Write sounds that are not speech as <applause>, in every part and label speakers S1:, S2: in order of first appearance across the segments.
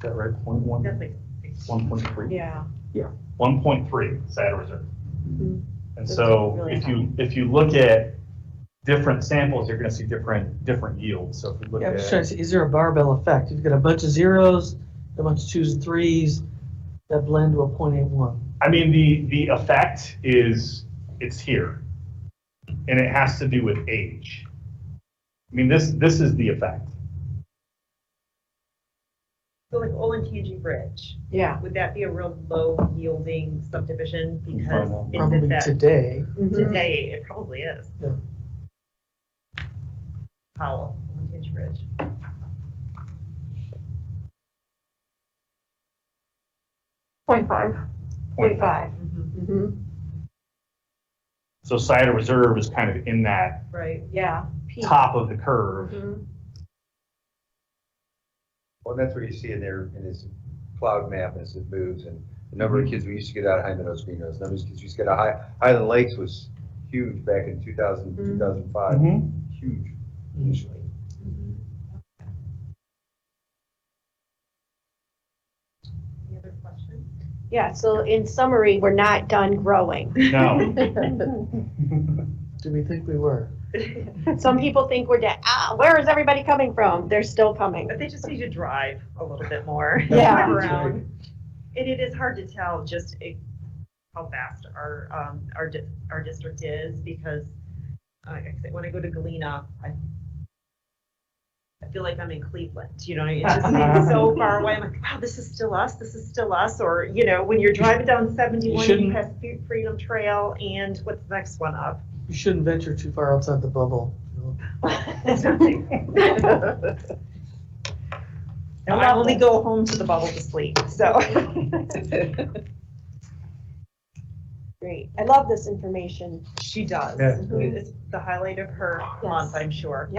S1: that right? Point one,
S2: That's like,
S1: one point three?
S2: yeah,
S3: one point three SAD reserve.
S2: Mhm.
S3: And
S2: That's
S3: so
S2: really
S3: if you, if you look at different samples, you're gonna see different, different yields. So if you look
S4: Yeah, I'm
S3: at,
S4: just trying to see, is there a barbell effect? You've got a bunch of zeros, a bunch of twos and threes that blend to a point eight one.
S3: I mean, the, the effect is, it's here. And it has to do with age. I mean, this, this is the effect.
S5: So like Olentangy Bridge,
S2: yeah.
S5: would that be a real low yielding subdivision because
S3: Probably.
S5: it's at
S4: Probably
S5: that,
S4: today.
S5: Mm-hmm.
S4: Mm-hmm.
S5: today, it probably is.
S4: Yeah.
S5: Powell, Olentangy Bridge.
S2: Point five. Point five.
S4: Mm-hmm.
S3: So cider reserve is kind of in that
S5: Right,
S2: Yeah. Mm-hmm. Peak.
S3: top of the curve.
S6: Well, that's what you see in there, in this cloud map as it moves, and the number
S5: Mhm.
S6: of kids we used to get out of High Meadows, Green Meadows, the number of kids we used to get out of High- Highland Lakes was huge back in 2000,
S5: Mm-hmm.
S6: 2005,
S3: Mhm.
S6: huge.
S4: Mm-hmm.
S5: any other questions?
S4: <laughs>
S7: Yeah, so in summary, we're not done growing.
S3: <laughs> No.
S4: Do we think we were?
S7: Some people think we're dead. Ah, where is everybody coming from? They're still coming.
S5: But they just need to drive a little bit more. <laughs>
S7: Yeah.
S5: Around. And it is hard to tell just eh, how fast our, um, our, di- our district is because uh, like I said, when I go to Galena, I, I feel like I'm in Cleveland, you know, it just seems so far away. I'm like, wow, this is still us, this is still us. Or, you know, when you're driving down seventy-one, you
S4: shouldn't-
S5: pass Fe- Freedom Trail and what's the next one up?
S4: You shouldn't venture too far outside the bubble. <laughs> you know.
S5: It's nothing.
S4: <laughs>
S5: <laughs> And I only go home to the bubble to sleep, so.
S7: Great. I love this information.
S5: She does.
S3: Yeah.
S5: It's the highlight of her month, I'm sure.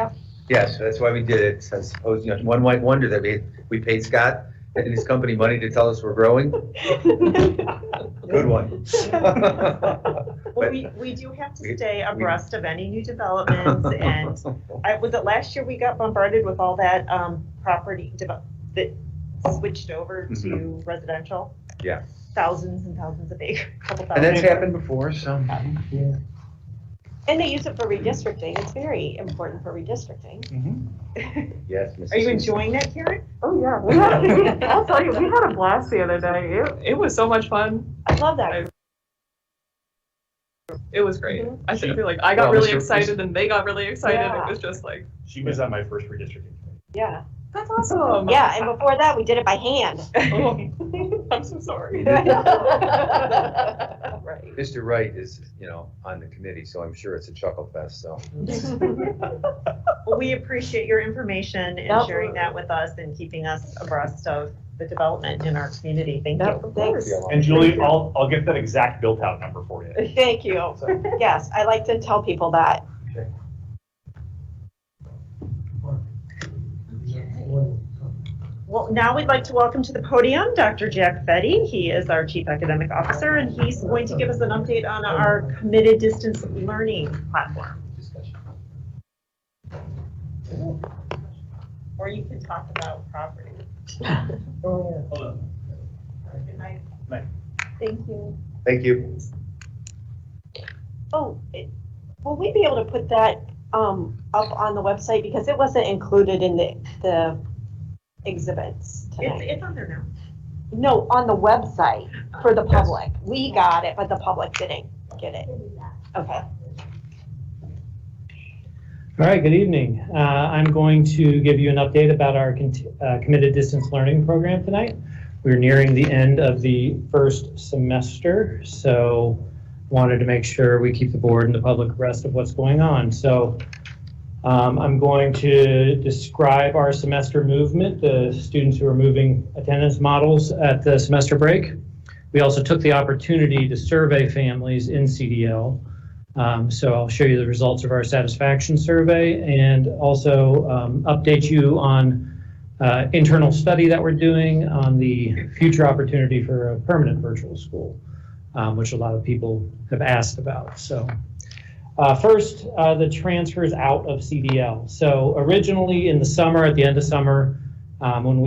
S6: Yes, that's why we did it, I suppose, you know, one might wonder that we, we paid Scott and his company money to tell us we're growing, good one.
S5: <laughs> Well,
S6: <laughs>
S5: we, we do have to
S6: We-
S5: stay
S6: we-
S5: abreast of any
S6: <laughs>
S5: new developments and I, was it last year we got bombarded with all that, um, property dev- that switched over to residential?
S6: Mm-hmm. Yeah.
S5: Thousands and thousands of acres, <laughs> couple
S6: And
S5: thousand.
S6: that's happened before, so.
S7: And they use it for redistricting. It's very important for
S3: <laughs>
S7: redistricting.
S3: Mhm.
S6: Yes.
S5: <laughs>
S6: Mrs.
S5: Are you
S6: Susan.
S5: enjoying
S7: <laughs>
S5: that, Karen?
S2: Oh, yeah. <laughs> We had, I'll tell you, we had a blast the other day. It, it was so much fun.
S7: I love that.
S2: It was great.
S7: Mhm.
S2: I feel like I got
S6: Well,
S2: really
S6: Mr.
S2: excited and they got really excited.
S7: Yeah.
S2: It was just like,
S3: She was on my first redistricting. committee.
S7: Yeah.
S2: that's awesome.
S7: Yeah, and before that, we did it by hand. <laughs>
S2: <laughs> Oh, I'm so sorry.
S5: Right.
S6: <laughs> Mr. Wright is, you know, on the committee, so I'm sure it's a chuckle fest, so.
S5: Well, we appreciate your information and sharing
S7: Mm-hmm. Absolutely.
S5: that with us and keeping us abreast of the development in our community. Thank you.
S7: Yep, Thanks.
S3: And Julie, I'll, I'll get that exact built-out number for you.
S7: Thank
S5: Oh,
S7: you. Yes, I like to tell people that.
S5: Well, now we'd like to welcome to the podium Dr. Jack Fetty. He is our Chief Academic Officer, and he's going to give us an update on our committed distance learning platform. Or you can talk about property. Good night.
S7: Thank you.
S6: Thank you.
S7: Oh, it- will we be able to put that um, up on the website? Because it wasn't included in the, the exhibits
S5: It's,
S7: tonight.
S5: it's on there now.
S7: No, on the website for the public. We got it, but the public didn't get it. Okay.
S8: All right, good evening. Uh, I'm going to give you an update about our cont- uh, committed distance learning program tonight. We're nearing the end of the first semester, so wanted to make sure we keep the board and the public abreast of what's going on. So um, I'm going to describe our semester movement, the students who are moving attendance models at the semester break. We also took the opportunity to survey families in CDL. Um, so I'll show you the results of our satisfaction survey and also um, update you on uh, internal study that we're doing on the future opportunity for a permanent virtual school, um, which a lot of people have asked about. So uh, first, uh, the transfers out of CDL. So originally in the summer, at the end of summer, um, when we